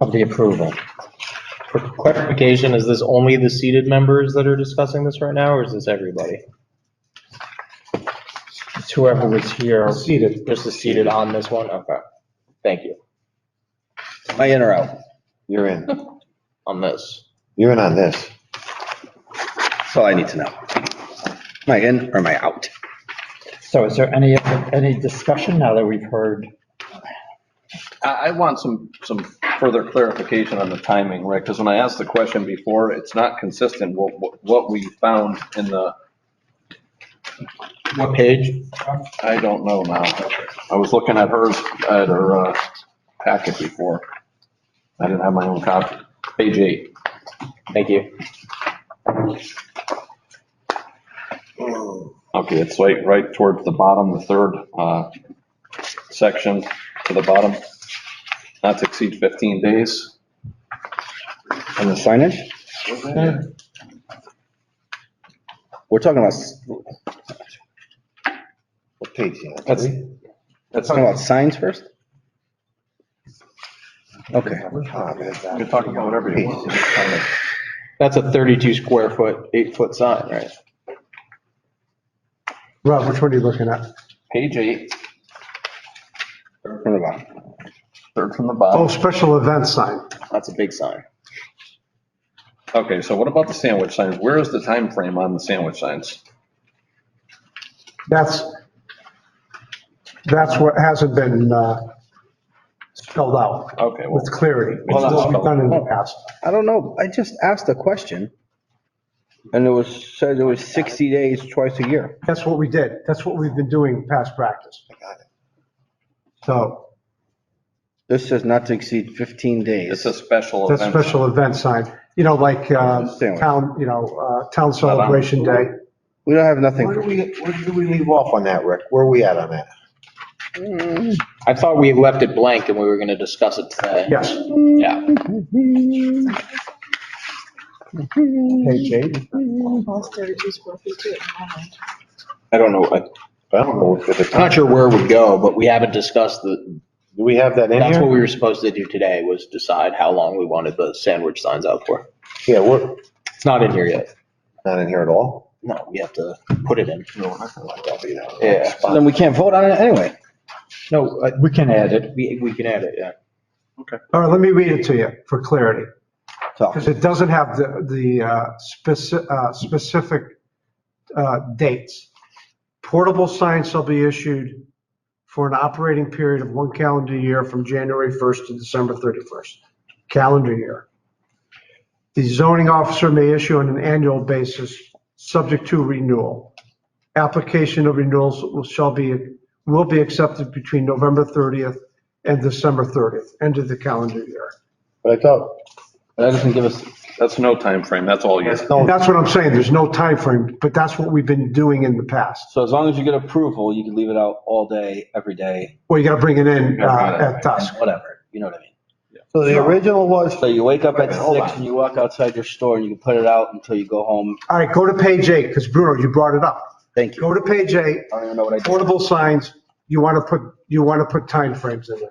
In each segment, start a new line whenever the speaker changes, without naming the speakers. of the approval.
For clarification, is this only the seated members that are discussing this right now, or is this everybody?
It's Whoever was here,
Seated. Just the seated on this one? Okay. Thank you.
Am I in or out?
You're in.
On this.
You're in on this.
That's all I need to know. Am I in or am I out?
so is there any, any discussion now that we've heard?
I, I want some, some further clarification on the timing, right? Because when I asked the question before, it's not consistent what, what- what we found in the,
What page?
I don't know now. I was looking at hers, at her uh, packet before. I didn't have my own copy. Page eight.
Thank you.
Okay, it's right, right towards the bottom, the third uh, section to the bottom. Not to exceed 15 days.
On the signage? We're talking about, s- we're
What page you on?
That's,
talking about signs first? Okay.
Ah, man.
You can talk about whatever you want.
that's a 32 square foot, eight foot sign, right?
Rob, which one are you looking at?
Page eight,
From the bottom.
third from the
Oh,
bottom.
special event sign.
That's a big sign.
Okay, so what about the sandwich signs? Where is the time frame on the sandwich signs?
That's, that's what hasn't been uh, spelled out
Okay, well,
with clarity. It's
Well,
what we've done in the past.
I don't know. I just asked a question. And it was, said it was 60 days twice a year.
That's what we did. That's what we've been doing past practice. So
This says not to exceed 15
it's
days.
a special
that's
event.
special event sign, you know, like uh,
Sandwich.
town, you know, uh, town celebration day.
We don't have nothing.
Where do we, where do we leave off on that, Rick? Where are we at on that?
I thought we left it blank and we were going to discuss it today.
Yes,
Yeah.
Page eight?
Almost thirty-two square feet too.
I don't know, what-
I don't know. if it's-
I'm not sure where we go, but we haven't discussed the,
Do we have that in
that's what
here?
we were supposed to do today was decide how long we wanted the sandwich signs out for.
Yeah, we're
It's not in here yet.
not in here at all.
No, we have to put it in.
Yeah.
So Then we can't vote on it anyway.
No, uh,
We can add it.
we, we can add it, yeah.
all right, let me read it to you for clarity.
So
Because it doesn't have the, the uh, speci- uh, specific uh, dates. Portable signs shall be issued for an operating period of one calendar year from January 1st to December 31st, calendar year. The zoning officer may issue on an annual basis, subject to renewal. Application of renewals will- shall be, will be accepted between November 30th and December 30th, end of the calendar year.
But I thought,
that doesn't give us,
That's no time frame. that's all you.
that's no,
That's what I'm saying, there's no time frame, but that's what we've been doing in the past.
so as long as you get approval, you can leave it out all day, every day,
Well, you gotta bring it in uh, at
and
dusk.
whatever, you know what I mean?
so the original was,
So you wake up
Wait a
at
minute, hold
six
on.
and you walk outside your store and you can put it out until you go home.
All right, go to page eight, because Bruno, you brought it up.
Thank you.
Go to page eight,
I don't even know what I did.
portable signs, you wanna put, you wanna put timeframes in there.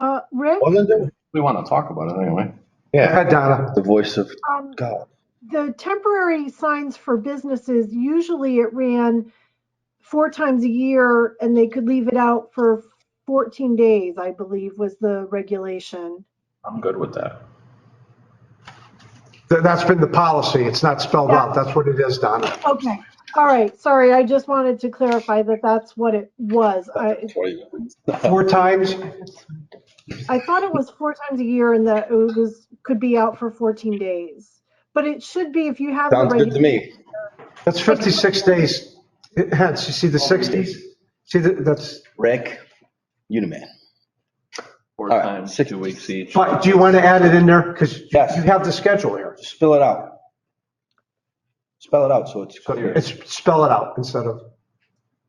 Uh, Rick,
wasn't there?
We want to talk about it anyway.
Go
Yeah,
ahead, Donna.
The voice of
um,
God.
the temporary signs for businesses, usually it ran four times a year and they could leave it out for fourteen days, I believe was the regulation.
I'm good with that.
Th- That's been the policy, it's not spelled out, that's what it is, Donna.
Okay. All right, sorry, I just wanted to clarify that that's what it was. I,
Four times,
I thought it was four times a year and that it was, could be out for fourteen days. But it should be if you have. the
Sounds good to me.
that's 56 days. It had, you see the 60s? See, the- that's,
Rick, you the man.
Four
All right,
times,
six-
two weeks each.
but do you wanna add it in there? Because you
Yes.
have the schedule here.
Spill it out. Spell it out so it's
So
clear.
It's spell it out instead of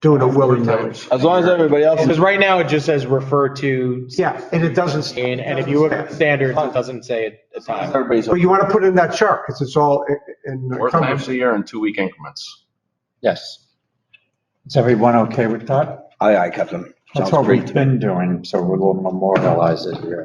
doing a willy-nilly.
As long as everybody else
Because
is,
right now it just says refer to,
Yeah, and it doesn't,
and, and if you look at the standards, it doesn't say a time.
everybody's,
but you want to put it in that chart because it's all in-
Four
in
times
cumbersome.
a year in two-week increments.
yes.
Is everyone okay with that?
Aye, aye, Captain.
That's
Sounds
what
great to me.
we've been doing, so we'll memorialize it here.